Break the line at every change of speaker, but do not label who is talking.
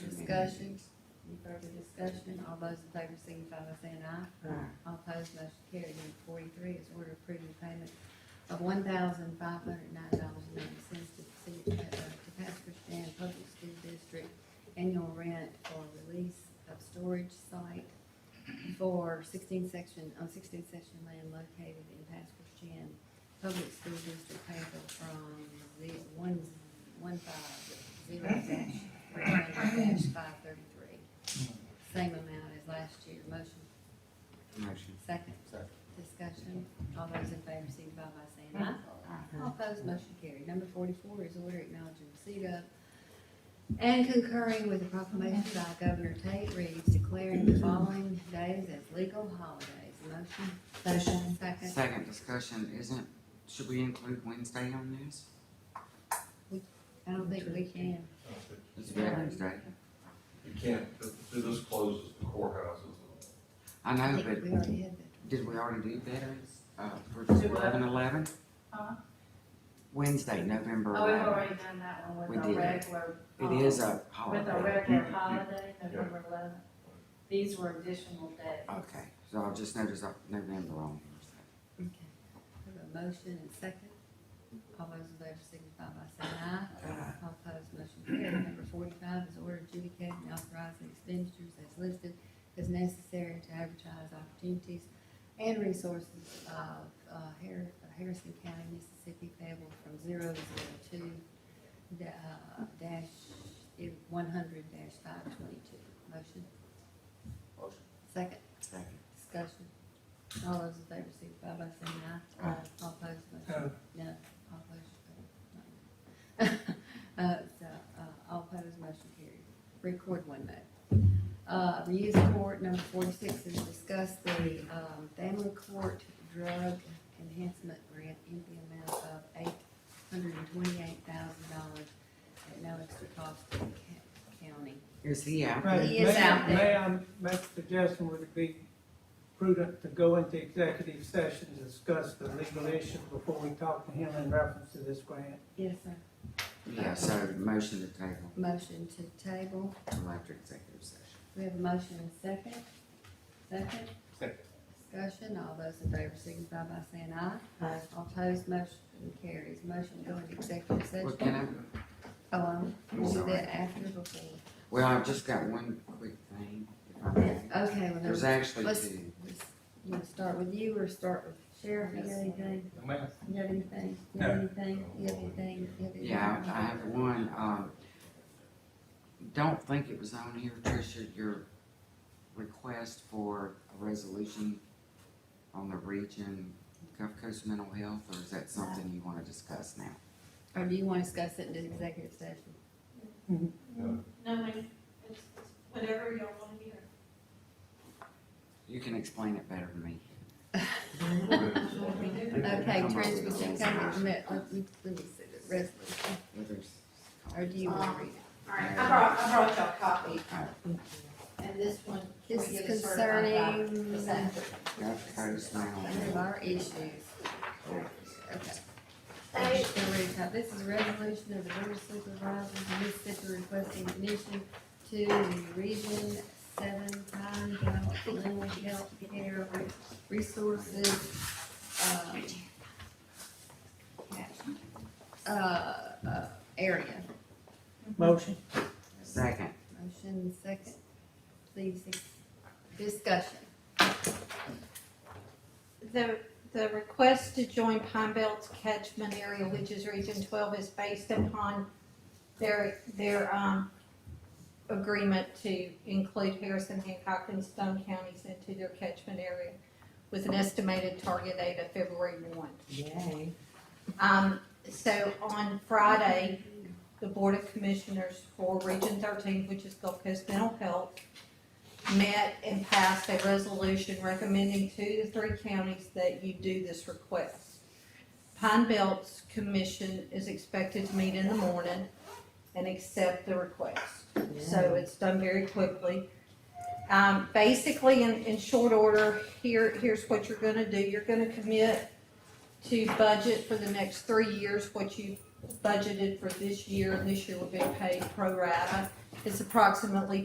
discussion? Any further discussion? All those in favor signify by saying aye. All opposed, motion carried. Number forty-three is order approving payment of one thousand five hundred nine dollars and ninety cents to the city, uh, to Pastor Stan Public School District annual rent for release of storage site for sixteen section, on sixteen section land located in Pastor Stan Public School District payable from the one, one five zero dash three hundred dash five thirty-three. Same amount as last year. Motion,
Motion.
second.
Second.
Discussion. All those in favor signify by saying aye. All opposed, motion carried. Number forty-four is order acknowledging receipt of and concurring with the proclamation by Governor Tate Reeves declaring the following days as legal holidays. Motion? Motion. Second.
Second discussion, isn't, should we include Wednesday on this?
I don't think we can.
It's Veterans Day.
You can't, th- th- this closes the courthouses.
I
I
know,
think
but
we already had that.
did we already do Veterans, uh, for
Do what?
eleven eleven?
Huh?
Wednesday, November
Oh, we've
eleventh.
already done that one
We
with our
did.
regular. um,
It is a
With our
holiday.
regular
You- you-
holiday, November eleventh. These were additional days.
Okay, so I'll just notice uh, November on here.
Okay. We have a motion and second. All those in favor signify by saying aye.
Aye.
All opposed, motion carried. Number forty-five is order adjudicating and authorizing expenditures as listed as necessary to advertise opportunities and resources of uh, Har- Harrison County, Mississippi payable from zero zero two da- uh, dash one hundred dash five twenty-two. Motion,
Motion.
second.
Second.
Discussion. All those in favor signify by saying aye.
Aye.
All opposed, motion, no, all opposed. no. Uh, so, uh, all opposed, motion carried. Record one note. Uh, the youth court, number forty-six, is discuss the, um, family court drug enhancement grant in the amount of eight hundred and twenty-eight thousand dollars at no extra cost to the ca- county.
Is he out?
Right,
He is
may-
out there.
May I make a suggestion, would it be prudent to go into executive session to discuss the legal issue before we talk to him in reference to this grant?
Yes, sir.
Yeah, so motion to table
Motion to table.
till after executive session.
We have a motion and second. Second?
Second.
Discussion, all those in favor signify by saying aye. Aye. All opposed, motion carries. Motion to go into executive
Well,
session.
can I
Oh, um, we'll do
Sorry.
that after before.
Well, I've just got one quick thing, if I may.
Uh,
Okay, well,
There's
then,
actually
let's-
two.
you wanna start with you or start with Sheriff? You got anything?
Ma'am.
You got anything? You got anything? You got anything? You got anything?
Yeah, I I have one, um, don't think it was on here, Tricia, your request for a resolution on the region Gulf Coast mental health, or is that something you wanna discuss now?
Or do you wanna discuss it in the executive session?
No.
No, I, it's, it's whatever y'all wanna hear.
You can explain it better than me.
We do.
Okay,
Come on.
Trish, would you come and let, let me, let me see the resolution, or do you wanna read it?
Alright, I brought, I brought y'all a copy, and this one.
This
we
is
get a certified copy.
concerning.
Is that-
Gulf Coast mental
Of
health.
our issues. Okay.
They,
Still reading top. This is a resolution of the Board of Supervisors of Mississippi requesting admission to the Region Seven Pine Belt Mental Health Care Resources, um, uh, uh, area.
Motion?
Second,
Motion second. Please, discussion.
the, the request to join Pine Belt's catchment area, which is Region Twelve, is based upon their, their, um, agreement to include Harrison, Hancock, and Stone counties into their catchment area with an estimated target date of February one.
Yay.
Um, so on Friday, the Board of Commissioners for Region thirteen, which is Gulf Coast Mental Health, met and passed a resolution recommending to the three counties that you do this request. Pine Belt's commission is expected to meet in the morning and accept the request. So it's done very quickly. Um, basically, in, in short order, here, here's what you're gonna do. You're gonna commit to budget for the next three years, what you budgeted for this year, and this year will be paid pro rata. It's approximately